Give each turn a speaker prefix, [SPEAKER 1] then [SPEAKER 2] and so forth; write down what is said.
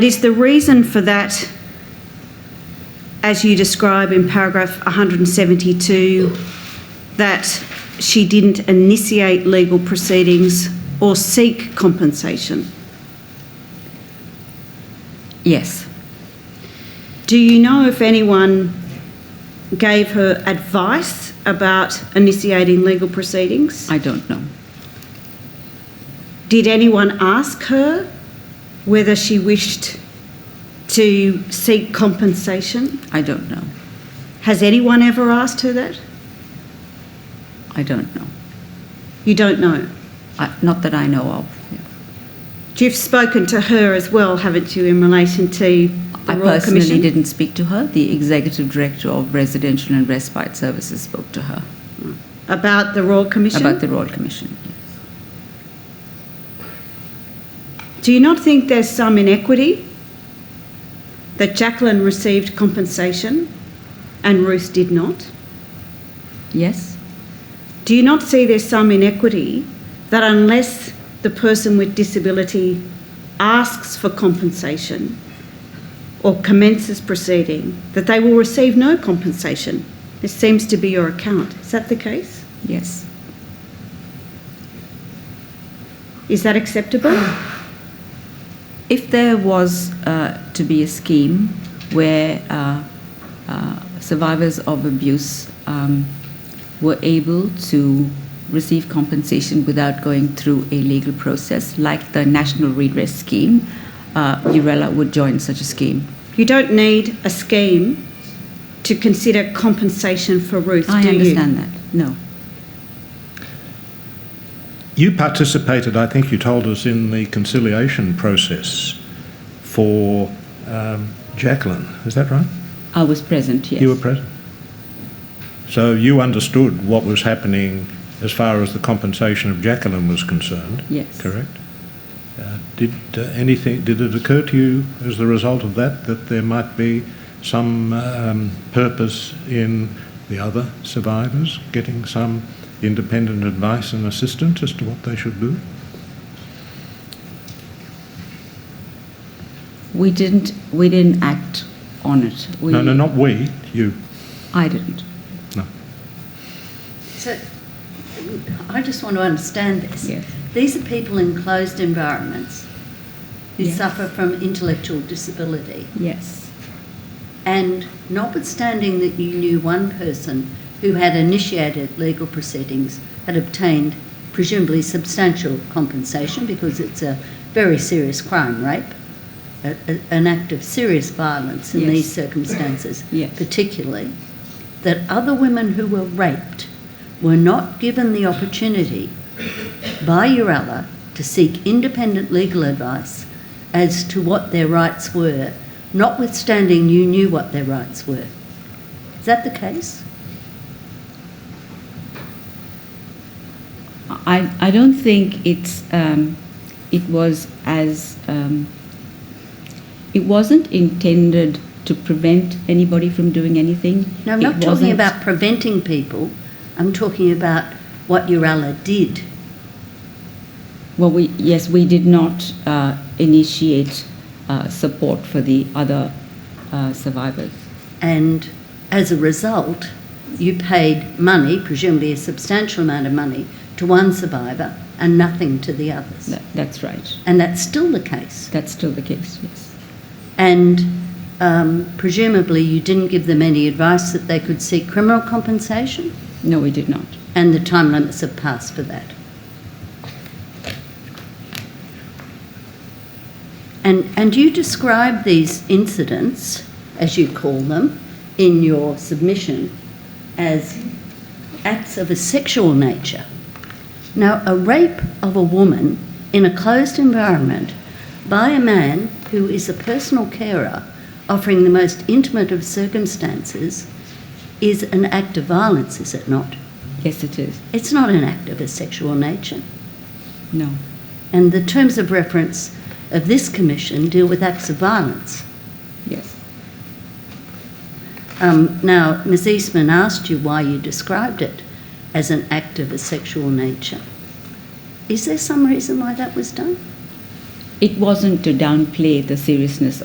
[SPEAKER 1] Is the reason for that, as you describe in paragraph 172, that she didn't initiate legal proceedings or seek compensation?
[SPEAKER 2] Yes.
[SPEAKER 1] Do you know if anyone gave her advice about initiating legal proceedings?
[SPEAKER 2] I don't know.
[SPEAKER 1] Did anyone ask her whether she wished to seek compensation?
[SPEAKER 2] I don't know.
[SPEAKER 1] Has anyone ever asked her that?
[SPEAKER 2] I don't know.
[SPEAKER 1] You don't know.
[SPEAKER 2] I, not that I know of. Yeah.
[SPEAKER 1] You've spoken to her as well, haven't you, in relation to the
[SPEAKER 2] I
[SPEAKER 1] Royal
[SPEAKER 2] personally
[SPEAKER 1] Commission?
[SPEAKER 2] didn't speak to her. The executive director of residential and respite services spoke to her
[SPEAKER 1] About the Royal Commission?
[SPEAKER 2] about the Royal Commission.
[SPEAKER 1] Do you not think there's some inequity that Jacqueline received compensation and Ruth did not?
[SPEAKER 2] Yes.
[SPEAKER 1] Do you not see there's some inequity that unless the person with disability asks for compensation or commences proceeding, that they will receive no compensation? This seems to be your account. Is that the case?
[SPEAKER 2] Yes.
[SPEAKER 1] Is that acceptable?
[SPEAKER 2] If there was uh, to be a scheme where uh, uh, survivors of abuse um, were able to receive compensation without going through a legal process, like the National Redress Scheme, uh, Urella would join such a scheme.
[SPEAKER 1] You don't need a scheme to consider compensation for Ruth,
[SPEAKER 2] I
[SPEAKER 1] do
[SPEAKER 2] understand that. No.
[SPEAKER 3] You participated, I think you told us, in the conciliation process for um, Jacqueline. Is that right?
[SPEAKER 2] I was present, yes.
[SPEAKER 3] You were present. So you understood what was happening as far as the compensation of Jacqueline was concerned.
[SPEAKER 2] Yes.
[SPEAKER 3] Correct. Uh, did uh, anything? Did it occur to you as the result of that that there might be some um, purpose in the other survivors getting some independent advice and assistance as to what they should do?
[SPEAKER 2] We didn't, we didn't act on it. We,
[SPEAKER 3] no, no, not we. You.
[SPEAKER 2] I didn't.
[SPEAKER 3] No.
[SPEAKER 4] So, I just want to understand this.
[SPEAKER 2] Yes.
[SPEAKER 4] These are people in closed environments who
[SPEAKER 2] Yes.
[SPEAKER 4] suffer from intellectual disability.
[SPEAKER 2] Yes.
[SPEAKER 4] And notwithstanding that you knew one person who had initiated legal proceedings, had obtained presumably substantial compensation because it's a very serious crime, rape, a, a- an act of serious violence in
[SPEAKER 2] Yes.
[SPEAKER 4] these circumstances,
[SPEAKER 2] Yes.
[SPEAKER 4] particularly, that other women who were raped were not given the opportunity by Urella to seek independent legal advice as to what their rights were, notwithstanding you knew what their rights were. Is that the case?
[SPEAKER 2] I, I don't think it's um, it was as um, it wasn't intended to prevent anybody from doing anything.
[SPEAKER 4] No, I'm
[SPEAKER 2] It
[SPEAKER 4] not talking
[SPEAKER 2] wasn't-
[SPEAKER 4] about preventing people. I'm talking about what Urella did.
[SPEAKER 2] Well, we yes, we did not uh, initiate uh, support for the other uh, survivors.
[SPEAKER 4] And as a result, you paid money, presumably a substantial amount of money, to one survivor and nothing to the others.
[SPEAKER 2] That, that's right.
[SPEAKER 4] And that's still the case.
[SPEAKER 2] That's still the case. Yes.
[SPEAKER 4] And um, presumably, you didn't give them any advice that they could seek criminal compensation,
[SPEAKER 2] No, we did not.
[SPEAKER 4] and the time limits have passed for that. And, and you describe these incidents, as you call them, in your submission as acts of a sexual nature. Now, a rape of a woman in a closed environment by a man who is a personal carer offering the most intimate of circumstances is an act of violence, is it not?
[SPEAKER 2] Yes, it is.
[SPEAKER 4] It's not an act of a sexual nature.
[SPEAKER 2] No.
[SPEAKER 4] And the terms of reference of this commission deal with acts of violence.
[SPEAKER 2] Yes.
[SPEAKER 4] Um, now, Ms. Eastman asked you why you described it as an act of a sexual nature. Is there some reason why that was done?
[SPEAKER 2] it wasn't to downplay the seriousness